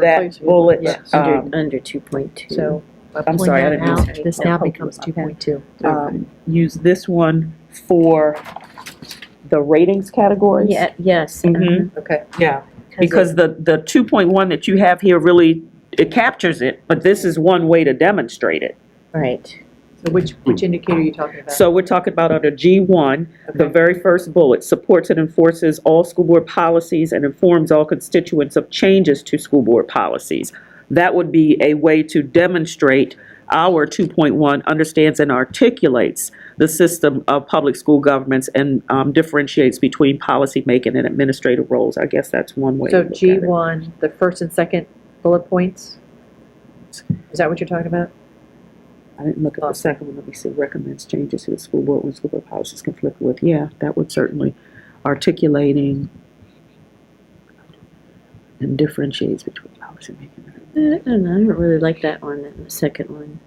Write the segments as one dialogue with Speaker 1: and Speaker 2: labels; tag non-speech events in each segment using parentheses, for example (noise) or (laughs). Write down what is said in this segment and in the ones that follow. Speaker 1: that bullet,
Speaker 2: Yes.
Speaker 1: um,
Speaker 3: Under, under two point two.
Speaker 2: So by
Speaker 1: I'm sorry, I
Speaker 2: pulling
Speaker 1: didn't
Speaker 2: that
Speaker 3: mean
Speaker 2: out,
Speaker 3: to-
Speaker 2: This now
Speaker 3: Okay.
Speaker 2: becomes two point two.
Speaker 1: um, use this one for the ratings categories?
Speaker 3: Yeah, yes. uh-huh,
Speaker 1: Mhm.
Speaker 2: Okay.
Speaker 1: Yeah,
Speaker 3: it-
Speaker 1: because the, the 2.1 that you have here really, it captures it, but this is one way to demonstrate it.
Speaker 3: Right,
Speaker 2: So which, which indicator are you talking about?
Speaker 1: Hmm. So we're talking about under G1, the
Speaker 2: Okay.
Speaker 1: very first bullet, supports and enforces all school board policies and informs all constituents of changes to school board policies. That would be a way to demonstrate our 2.1 understands and articulates the system of public school governments and um, differentiates between policymaking and administrative roles. I guess that's one way. to
Speaker 2: So
Speaker 1: look at
Speaker 2: G
Speaker 1: it.
Speaker 2: one, the first and second bullet points? Is that what you're talking about?
Speaker 1: I didn't look at the second one, let me see, recommends changes to the school board when school board policies conflict with, yeah, that would certainly articulating and differentiates between policymaking.
Speaker 3: I don't know, I don't really like that one, the second one.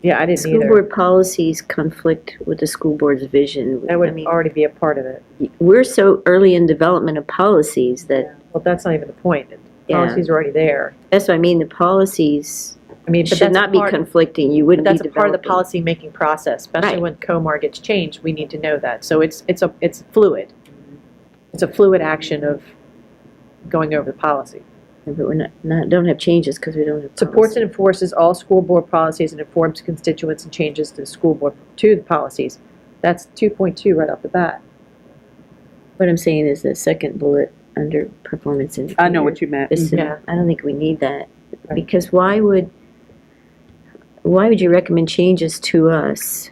Speaker 2: Yeah, I didn't
Speaker 3: School
Speaker 2: either.
Speaker 3: board policies conflict with the school board's vision.
Speaker 2: That
Speaker 3: I
Speaker 2: would
Speaker 3: mean,
Speaker 2: already be a part of it.
Speaker 3: We're so early in development of policies that,
Speaker 2: Well, that's not even the point. The
Speaker 3: Yeah.
Speaker 2: Policies are already there.
Speaker 3: that's what I mean, the policies
Speaker 2: I mean, but
Speaker 3: should
Speaker 2: that's a
Speaker 3: not be
Speaker 2: part-
Speaker 3: conflicting, you
Speaker 2: But
Speaker 3: wouldn't be
Speaker 2: that's a part of the
Speaker 3: developing.
Speaker 2: policy-making process, especially
Speaker 3: Right.
Speaker 2: when COMAR gets changed, we need to know that. So it's, it's a, it's fluid. It's a fluid action of going over the policy.
Speaker 3: But we're not, not, don't have changes because we don't have.
Speaker 2: Supports
Speaker 3: policy.
Speaker 2: and enforces all school board policies and informs constituents and changes to the school board, to the policies. That's 2.2 right off the bat.
Speaker 3: What I'm saying is the second bullet under performance indicator.
Speaker 1: I know what you meant.
Speaker 3: This,
Speaker 2: Yeah.
Speaker 3: I don't think we need that,
Speaker 2: Right.
Speaker 3: because why would, why would you recommend changes to us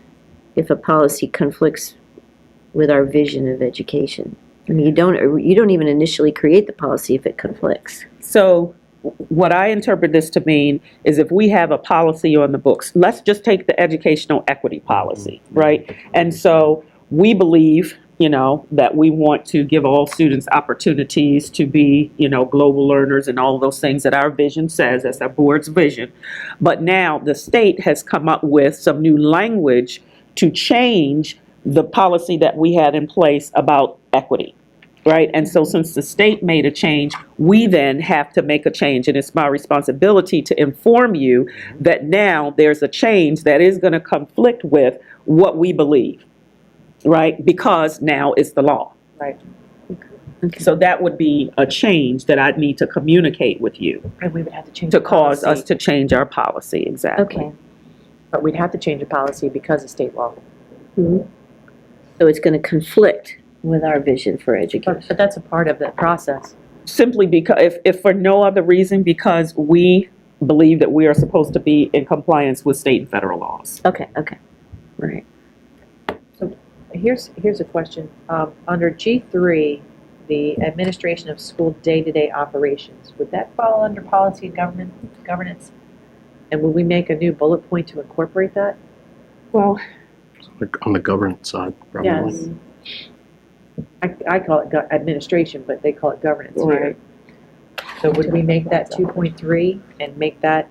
Speaker 3: if a policy conflicts with our vision of education? I mean, you don't, you don't even initially create the policy if it conflicts.
Speaker 1: So what I interpret this to mean is if we have a policy on the books, let's just take the educational equity policy, right? And so we believe, you know, that we want to give all students opportunities to be, you know, global learners and all those things that our vision says, that's our board's vision. But now the state has come up with some new language to change the policy that we had in place about equity right? And so since the state made a change, we then have to make a change. And it's my responsibility to inform you that now there's a change that is going to conflict with what we believe, right? Because now it's the law.
Speaker 2: Right.
Speaker 1: So that would be a change that I'd need to communicate with you
Speaker 2: And we would have to change.
Speaker 1: to
Speaker 2: the
Speaker 1: cause us
Speaker 2: policy.
Speaker 1: to change our policy, exactly.
Speaker 3: Okay.
Speaker 2: But we'd have to change the policy because of state law.
Speaker 3: Mm-hmm. So it's gonna conflict with our vision for education.
Speaker 2: But but that's a part of that process.
Speaker 1: simply because, if, if for no other reason, because we believe that we are supposed to be in compliance with state and federal laws.
Speaker 3: Okay, okay, all right.
Speaker 2: Here's, here's a question. Um, Under G3, the administration of school day-to-day operations, would that fall under policy and government, governance? And would we make a new bullet point to incorporate that?
Speaker 1: Well,
Speaker 4: on the governance side, probably.
Speaker 2: I, I call it go- administration, but they call it governance here.
Speaker 1: Right.
Speaker 2: So would we make that 2.3 and make that?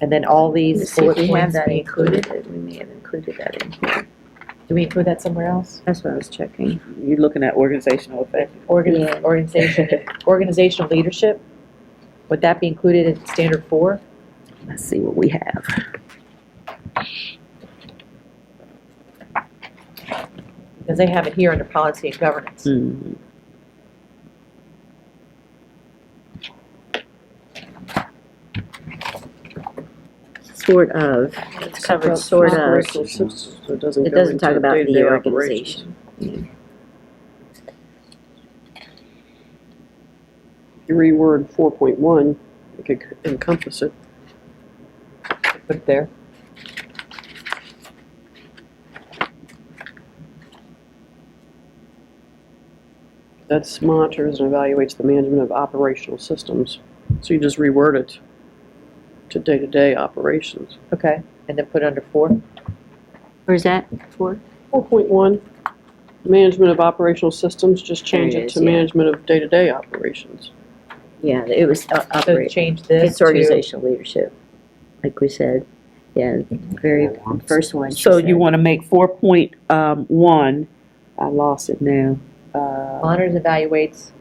Speaker 2: And then all these
Speaker 3: See if
Speaker 2: bullet
Speaker 3: we have
Speaker 2: points
Speaker 3: that
Speaker 2: be included?
Speaker 3: included, we may have included that in here.
Speaker 2: Do we include that somewhere else?
Speaker 3: That's what I was checking.
Speaker 1: You're looking at organizational effect.
Speaker 3: Yeah.
Speaker 2: Organ-
Speaker 3: (laughs)
Speaker 2: Organization, organizational leadership, would that be included in standard four?
Speaker 1: Let's see what we have.
Speaker 2: Because they have it here under policy and governance.
Speaker 3: Sort of, it's covered sort of. It doesn't talk about the organization.
Speaker 5: you reword four point one, it could encompass it.
Speaker 2: Put it there.
Speaker 5: That's monitors and evaluates the management of operational systems. So you just reword it to day-to-day operations.
Speaker 2: Okay, and then put it under four?
Speaker 3: Where's that for?
Speaker 5: Four point one, management of operational systems, just change
Speaker 3: There it
Speaker 5: it
Speaker 3: is,
Speaker 5: to
Speaker 3: yeah.
Speaker 5: management of day-to-day operations.
Speaker 3: Yeah, it was o-
Speaker 2: So
Speaker 3: operate,
Speaker 2: change this
Speaker 3: it's
Speaker 2: to.
Speaker 3: organizational leadership, like we said, yeah, very first one. she
Speaker 1: So you
Speaker 3: said.
Speaker 1: want to make four point um, one, I lost it now. Uh,
Speaker 2: Monitors, evaluates